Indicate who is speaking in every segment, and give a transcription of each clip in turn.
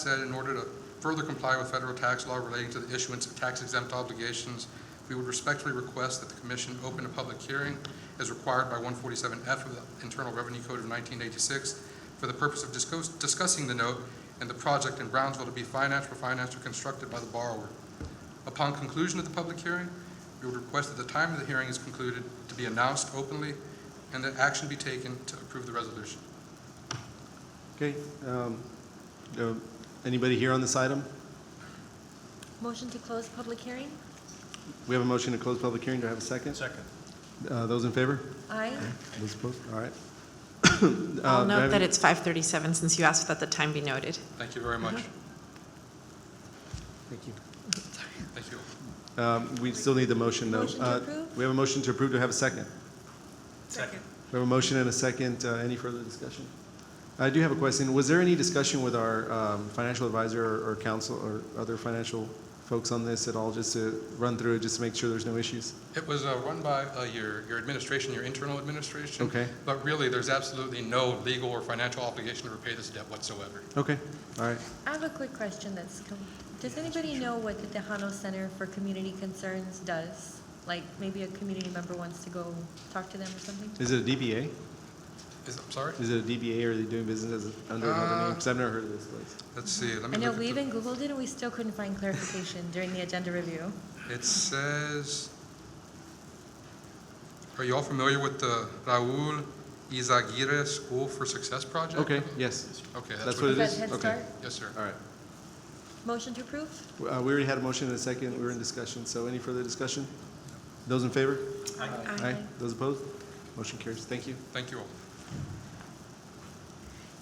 Speaker 1: said, in order to further comply with federal tax law relating to the issuance of tax exempt obligations, we would respectfully request that the commission open a public hearing as required by 147F of the Internal Revenue Code of 1986 for the purpose of discuss- discussing the note and the project in Brownsville to be financed or financed or constructed by the borrower. Upon conclusion of the public hearing, we would request that the time of the hearing is concluded to be announced openly and that action be taken to approve the resolution.
Speaker 2: Okay, um, uh, anybody here on this item?
Speaker 3: Motion to close public hearing?
Speaker 2: We have a motion to close public hearing, do I have a second? Second. Those in favor?
Speaker 3: Aye.
Speaker 2: Those opposed? All right. Uh, do
Speaker 4: I'll
Speaker 2: I
Speaker 4: note
Speaker 2: have
Speaker 4: Oh, that
Speaker 2: any-
Speaker 4: it's 5:37 since you asked that the time be noted.
Speaker 1: Thank you very much.
Speaker 2: Thank you.
Speaker 1: Thank you.
Speaker 2: Um, We still need the motion, though.
Speaker 3: Motion to
Speaker 2: Uh,
Speaker 3: approve?
Speaker 2: We have a motion to approve, do I have a second?
Speaker 1: Second.
Speaker 2: We have a motion and a second, Uh, any further discussion? I do have a question, was there any discussion with our um, financial advisor or- or counsel or other financial folks on this at all, just to run through it, just to make sure there's no issues?
Speaker 1: It was uh, run by uh, your, your administration, your internal administration.
Speaker 2: Okay.
Speaker 1: But really, there's absolutely no legal or financial obligation to repay this debt whatsoever.
Speaker 2: Okay, all right.
Speaker 3: I have a quick question that's, com- does anybody know what the Tejano Center for Community Concerns does? Like, maybe a community member wants to go talk to them or something?
Speaker 2: Is it a DBA?
Speaker 1: Is, I'm sorry?
Speaker 2: Is it a DBA or are they doing business as, under another name? Because I've never heard of this place.
Speaker 1: Let's see, let me look
Speaker 3: I know
Speaker 1: at
Speaker 3: we
Speaker 1: the-
Speaker 3: even Googled it and we still couldn't find clarification during the agenda review.
Speaker 1: It says, are you all familiar with the Raul Izaguirre School for Success project?
Speaker 2: Okay, yes.
Speaker 1: Okay,
Speaker 2: That's
Speaker 1: that's
Speaker 2: what
Speaker 1: what,
Speaker 2: it
Speaker 3: Is that
Speaker 2: is?
Speaker 3: Head
Speaker 2: Okay.
Speaker 3: Start?
Speaker 1: yes, sir.
Speaker 2: All right.
Speaker 3: Motion to approve?
Speaker 2: Uh, We already had a motion and a second. We were in discussion, so any further discussion? Those in favor? Those opposed? Motion carries. Thank you.
Speaker 1: Thank you all.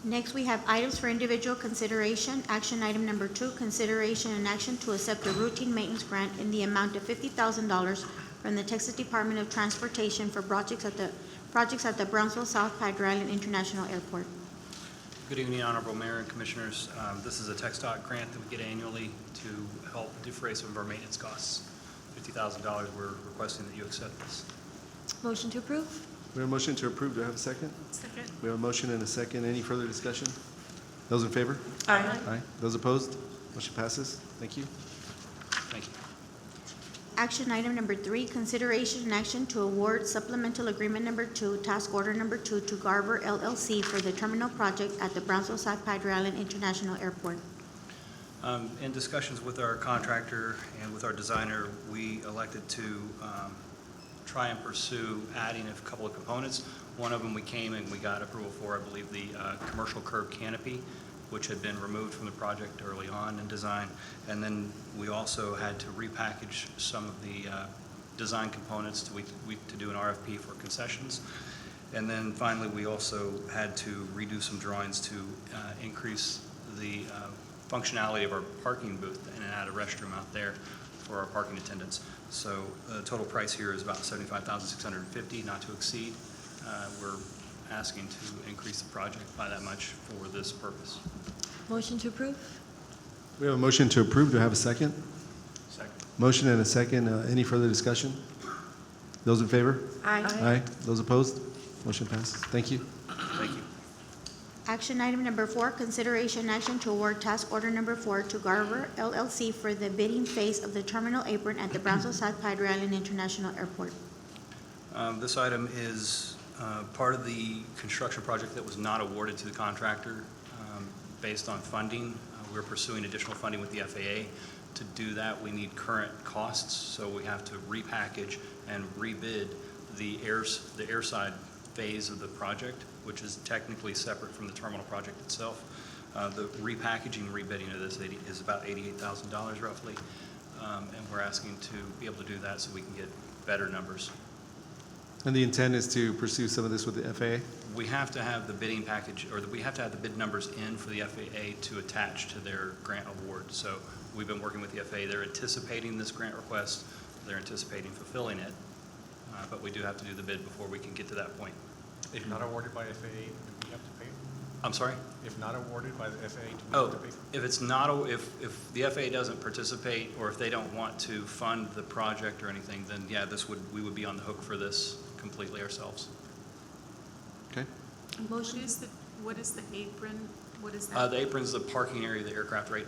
Speaker 5: Next, we have items for individual consideration. Action item number two, consideration and action to accept a routine maintenance grant in the amount of fifty thousand dollars from the Texas Department of Transportation for projects at the, projects at the Brownsville South Padre Island International Airport.
Speaker 6: Good evening, Honorable Mayor and Commissioners. Um, This is a Tech Dot grant that we get annually to help defray some of our maintenance costs. $50,000, we're requesting that you accept this.
Speaker 3: Motion to approve?
Speaker 2: We have a motion to approve. Do I have a second?
Speaker 4: Second.
Speaker 2: We have a motion and a second. Any further discussion? Those in favor?
Speaker 4: Aye.
Speaker 2: Aye. Those opposed? Motion passes. Thank you.
Speaker 6: Thank you.
Speaker 5: Action item number three, consideration and action to award supplemental agreement number two, task order number two to Garver LLC for the terminal project at the Brownsville South Padre Island International Airport.
Speaker 6: Um, In discussions with our contractor and with our designer, we elected to um, try and pursue adding a couple of components. One of them we came and we got approval for, I believe, the uh, commercial curb canopy, which had been removed from the project early on in design. And then we also had to repackage some of the uh, design components to we- we- to do an RFP for concessions. And then finally, we also had to redo some drawings to uh, increase the uh, functionality of our parking booth and add a restroom out there for our parking attendants. So the total price here is about $75,650, not to exceed. Uh, We're asking to increase the project by that much for this purpose.
Speaker 3: Motion to approve?
Speaker 2: We have a motion to approve. Do I have a second?
Speaker 6: Second.
Speaker 2: Motion and a second. Uh, Any further discussion? Those in favor?
Speaker 3: Aye.
Speaker 2: Aye. Those opposed? Motion passes. Thank you.
Speaker 6: Thank you.
Speaker 5: Action item number four, consideration and action to award task order number four to Garver LLC for the bidding phase of the terminal apron at the Brownsville South Padre Island International Airport.
Speaker 6: Um, This item is uh, part of the construction project that was not awarded to the contractor um, based on funding. Uh, We're pursuing additional funding with the FAA. To do that, we need current costs, so we have to repackage and rebid the airs, the airside phase of the project, which is technically separate from the terminal project itself. Uh, The repackaging, rebidding of this 80 is about $88,000 roughly, Um, and we're asking to be able to do that so we can get better numbers.
Speaker 2: And the intent is to pursue some of this with the FAA?
Speaker 6: We have to have the bidding package, or we have to have the bid numbers in for the FAA to attach to their grant award. So we've been working with the FAA, they're anticipating this grant request, they're anticipating fulfilling it, Uh, but we do have to do the bid before we can get to that point.
Speaker 7: If not awarded by FAA, do we have to pay?
Speaker 6: I'm sorry?
Speaker 7: If not awarded by the FAA, do we have
Speaker 6: Oh,
Speaker 7: to pay?
Speaker 6: if it's not, a- if, if the FAA doesn't participate, or if they don't want to fund the project or anything, then yeah, this would, we would be on the hook for this completely ourselves.
Speaker 2: Okay.
Speaker 3: Motion,
Speaker 8: What is the, what is the apron What is that?
Speaker 6: Uh, The apron's the parking area of the aircraft right